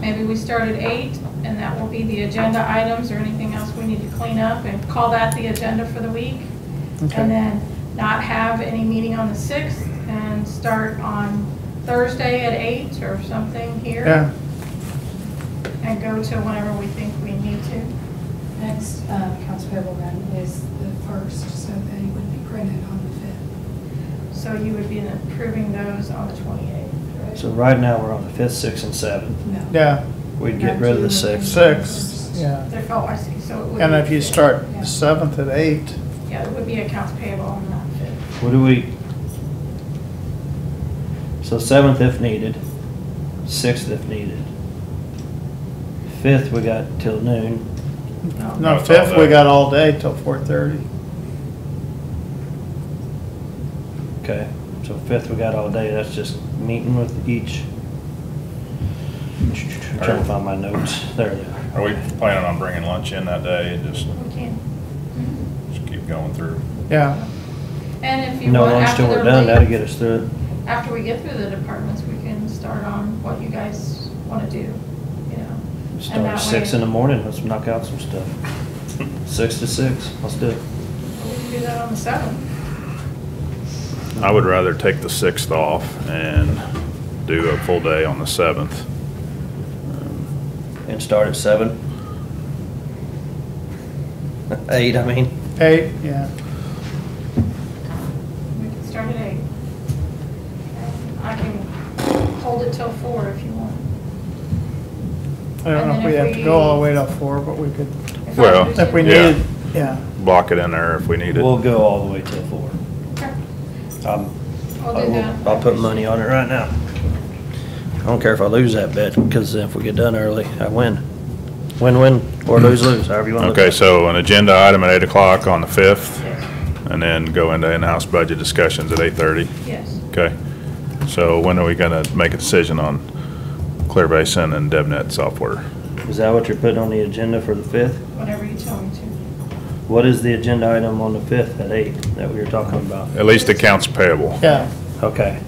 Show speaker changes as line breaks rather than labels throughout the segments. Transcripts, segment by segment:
Maybe we start at eight, and that will be the agenda items or anything else we need to clean up, and call that the agenda for the week.
Okay.
And then not have any meeting on the sixth, and start on Thursday at eight or something here.
Yeah,
And go to whenever we think we need to.
Next uh, accounts payable run is the first, so they would be printed on the fifth.
So you would be approving those on the twenty-eighth, right?
So right now, we're on the fifth, sixth, and seventh.
No.
yeah,
We'd get rid of the sixth.
six, yeah.
They're- Oh, I see, so it would.
And
be
if you
the fifth.
start the seventh at eight,
Yeah, it would be accounts payable on that fifth.
What do we? So seventh if needed, sixth if needed. Fifth, we got till noon.
no, fifth, we got all day till four thirty.
Okay, so fifth, we got all day. That's just meeting with each. I'm Trying to find my notes. There they are.
Are we planning on bringing lunch in that day and just,
We Mm-hmm. can.
just keep going through?
Yeah,
And if you
No
want,
lunch
after
till we're
they're
done. That'll
late,
get us through it.
after we get through the departments, we can start on what you guys want to do, you know? And
Start
that
at six
way-
in the morning. Let's knock out some stuff. Six to six. Let's do it.
We can do that on the seventh.
I would rather take the sixth off and do a full day on the seventh.
And start at seven? Eight, I mean.
eight, yeah.
We can start at eight. And I can hold it till four if you want.
I don't know if we have to go all the way to four, but we could,
If I
Well,
lose
if we
you-
Yeah.
need, yeah.
Block it in there if we need
We'll
it.
go all the way till four.
Okay,
Um,
I'll
I
do
will-
that.
I'll put money on it right now. I don't care if I lose that bet, because if we get done early, I win. Win-win, or lose-lose, however you want to look at it.
Hmm. Okay, so an agenda item at eight o'clock on the fifth
Yes,
and then go into in-house budget discussions at eight thirty.
Yes.
Okay. So when are we gonna make a decision on Clear Basin and DevNet software?
Is that what you're putting on the agenda for the fifth?
whenever you tell me to.
What is the agenda item on the fifth at eight that we were talking about?
At least accounts payable.
Yeah,
Okay,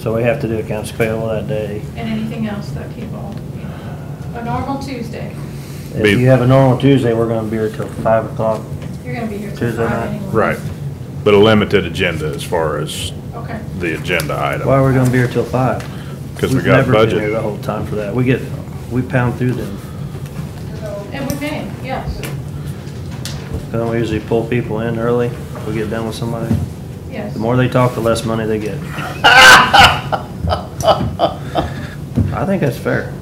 so we have to do accounts payable that day.
And anything else that people, you know, a normal Tuesday,
If
Be-
you have a normal Tuesday, we're gonna be here till five o'clock.
you're gonna be here till
Tuesday
five
night.
anyway.
Right. But a limited agenda as far as
Okay.
the agenda item.
Why are we gonna be here till five?
'Cause we
We've
got
never been
budget.
here The whole time for that. We get, we pound through them.
And we may, yes,
Don't we usually pull people in early? We get done with somebody.
yes.
The more they talk, the less money they get. I think that's fair.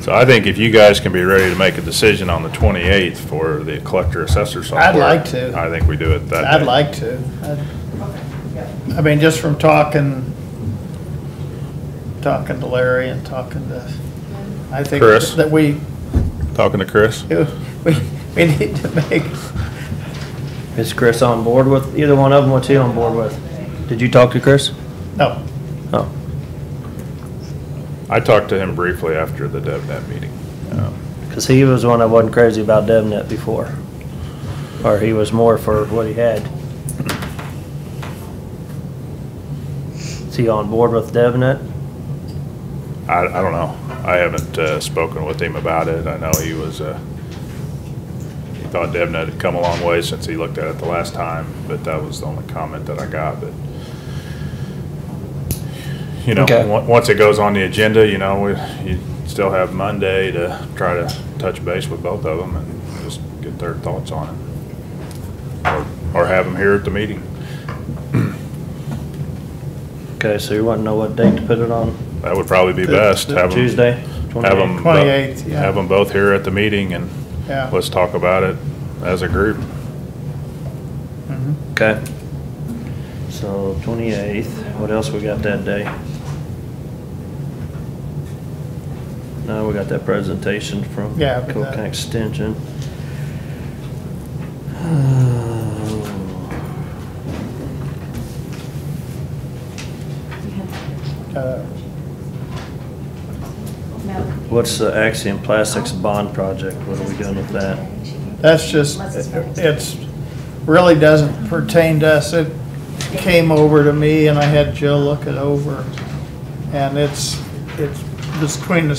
So I think if you guys can be ready to make a decision on the 28th for the collector assessor software.
like to.
I think we do it that day.
I'd like to. I'd- I mean, just from talking, talking to Larry and talking to, I think
Chris?
that we,
Talking to Chris?
we, we need to make,
Is Chris on board with, either one of them, what's he on board with? Did you talk to Chris?
no,
Oh,
I talked to him briefly after the DevNet meeting. Um,
because he was one that wasn't crazy about DevNet before. Or he was more for what he had. Is he on board with DevNet?
I, I don't know. I haven't uh, spoken with him about it. I know he was, uh, he thought DevNet had come a long way since he looked at it the last time, but that was the only comment that I got, but you know,
Okay.
on- once it goes on the agenda, you know, we, you still have Monday to try to touch base with both of them and just get their thoughts on it. Or, or have them here at the meeting.
Okay, so you want to know what date to put it on?
That would probably be
The-
best.
the
Have 'em-
Tuesday?
Have them.
28th, yeah.
Have them both here at the meeting and
yeah.
let's talk about it as a group.
Mhm.
Okay. So 28th, what else we got that day? No, we got that presentation from
Yeah, but
Cook
that-
Extension.
Uh,
What's the Axiom Plastics Bond Project? What are we doing with that?
That's just, it's, really doesn't pertain to us. It came over to me and I had Jill look it over. And it's, it's between the